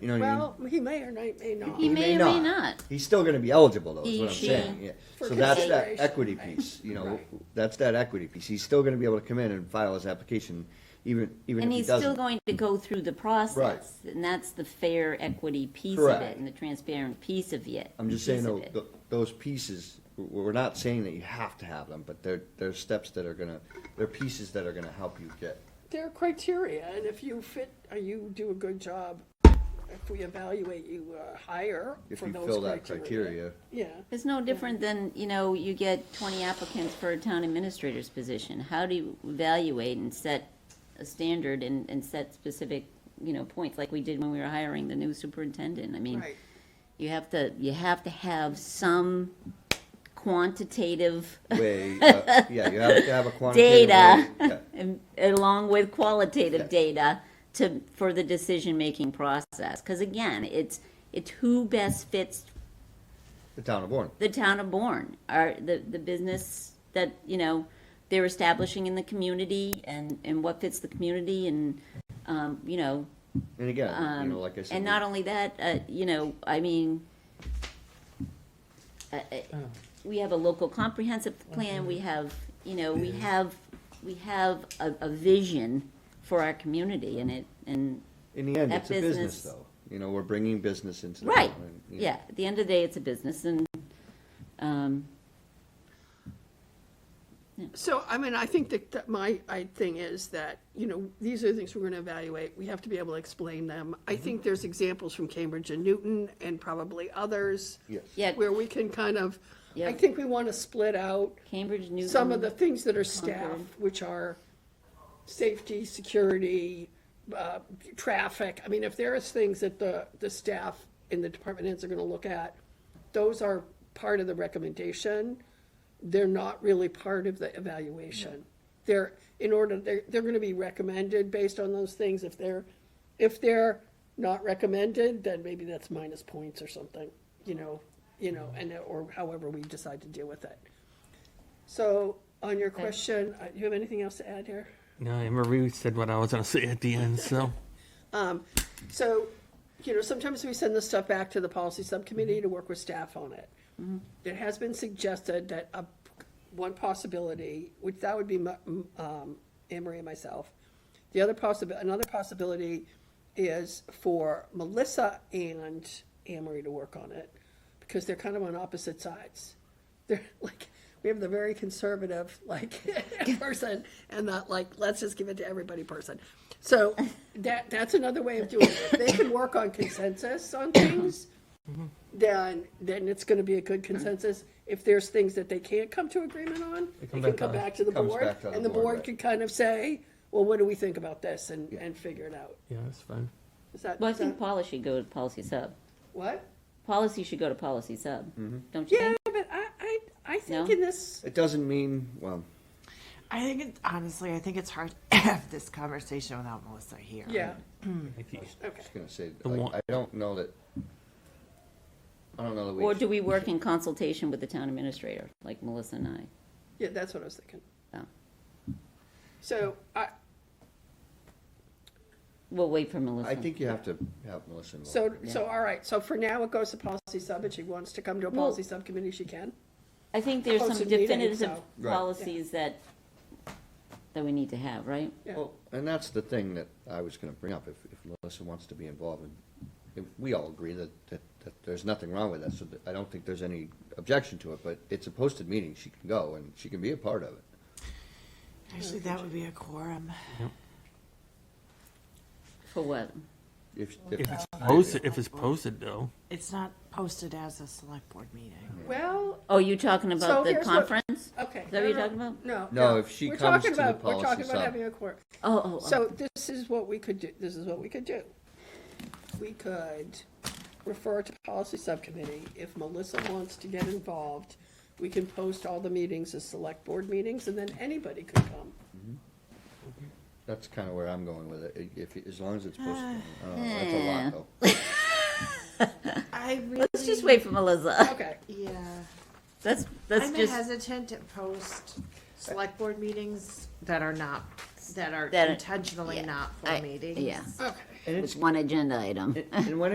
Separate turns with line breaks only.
You know what I mean?
Well, he may or may, may not.
He
He
may
may
or may
not.
not.
He's still gonna be eligible though, is
He,
what I'm
she.
saying, yeah.
For
So that's that
consideration,
equity
right.
piece, you know,
Right.
that's that equity piece. He's still gonna be able to come in and file his application, even, even
And
if he
he's still
doesn't.
going to go through the process. And that's the fair equity piece of
Correct.
it and the transparent piece of it.
I'm just
piece
saying
of
though,
it.
th- those pieces, we're we're not saying that you have to have them, but they're, they're steps that are gonna, they're pieces that are gonna help you get.
There are criteria, and if you fit, or you do a good job, if we evaluate you uh, higher
If
for
you
those
fill that
criteria.
criteria,
Yeah,
It's no different than, you know, you get twenty applicants for a town administrator's position. How do you evaluate and set a standard and, and set specific, you know, points like we did when we were hiring the new superintendent? I
Hmm.
mean,
right.
you have to, you have to have some quantitative
way, uh, yeah, you have to have a quantitative.
data,
way- yeah.
and- along with qualitative
Yeah.
data to, for the decision-making process. Because again, it's, it's who best fits
The town of Bourne.
the town of Bourne, are the, the business that, you know, they're establishing in the community and, and what fits the community and, um, you know,
And again,
um,
you know, like I said.
and not only that, uh, you know, I mean, uh, uh,
Oh.
we have a local comprehensive plan, we have, you know, we have, we have a, a vision for our community and it, and,
In the end,
that
it's a business
business-
though. You know, we're bringing business into the
right,
town and, you know,
yeah, at the end of the day, it's a business and, um,
So, I mean, I think that, that my, I thing is that, you know, these are the things we're gonna evaluate, we have to be able to explain them. I
Mm-hmm.
think there's examples from Cambridge and Newton and probably others.
Yes.
Yeah.
Where we can kind of, I
Yeah.
think we wanna split out
Cambridge, Newton.
some of the things that are staff,
Concord.
which are safety, security, uh, traffic. I mean, if there is things that the, the staff in the department heads are gonna look at, those are part of the recommendation. They're not really part of the evaluation. They're, in order, they're, they're gonna be recommended based on those things. If they're, if they're not recommended, then maybe that's minus points or something, you know, you know, and, or however we decide to deal with it. So on your question, uh, you have anything else to add here?
No, I Marie said what I was gonna say at the end, so.
So, you know, sometimes we send this stuff back to the policy subcommittee to work with staff on it. It has been suggested that a, one possibility, which that would be mu- m- um, Anne Marie and myself. The other possible, another possibility is for Melissa and Anne Marie to work on it, because they're kind of on opposite sides. They're like, we have the very conservative, like, person, and that, like, let's just give it to everybody person. So that, that's another way of doing it. If They can work on consensus on things,
Mm-hmm.
then, then it's gonna be a good consensus. If there's things that they can't come to agreement on, they can
come back
come
on.
back to the
Comes
board,
back to the
and the
board,
board
right.
can kind of say, well, what do we think about this, and, and figure it out.
Yeah, that's fine.
Is that,
Well, I
is that-
think Paula should go to policy sub.
what?
Policy should go to policy sub,
Mm-hmm.
don't you
Yeah, but
think?
I, I, I think
No?
in this,
It doesn't mean, well,
I think it's honestly, I think it's hard to have this conversation without Melissa here.
yeah,
I
okay.
was gonna say,
The
like,
one-
I don't know that. I don't know that we.
Or do we work in consultation with the town administrator, like Melissa and I?
Yeah, that's what I was thinking.
Oh.
So I,
We'll wait for Melissa.
I think you have to have Melissa involved.
so, so, all right, so for now it goes to policy sub, and she wants to come to a
Well-
policy subcommittee, she can.
I think there's some
Posted meeting,
definitive
so-
Right.
policies that, that we need to have, right?
Yeah.
Well, and that's the thing that I was gonna bring up, if, if Melissa wants to be involved, and if we all agree that, that, that there's nothing wrong with that, so that- I don't think there's any objection to it, but it's a posted meeting, she can go, and she can be a part of it.
Actually, that would be a quorum.
For what?
If,
If
if,
it's posted, if it's posted though,
It's not posted as a select board meeting.
Well,
Oh, you talking
So
about the
here's what-
conference?
okay.
that what
no,
you're
no,
talking about?
No.
No, if she
We're
comes
talking
to the
about- We're
policy
talking about
sub.
having a court.
Oh, oh, oh,
So this is what we could do, this is what we could do. We could refer to policy subcommittee. If Melissa wants to get involved, we can post all the meetings as select board meetings, and then anybody could come.
that's kinda where I'm going with it, if, as long as it's posted,
Ah,
I don't know, that's a lot, though.
I really.
let's just wait for Melissa.
Okay,
Yeah.
That's, that's
I'm
just,
hesitant to post select board meetings that are not, that are
That are-
intentionally
yeah,
not
I-
full meetings.
yeah,
okay.
And
it's
it's,
one agenda item.
and when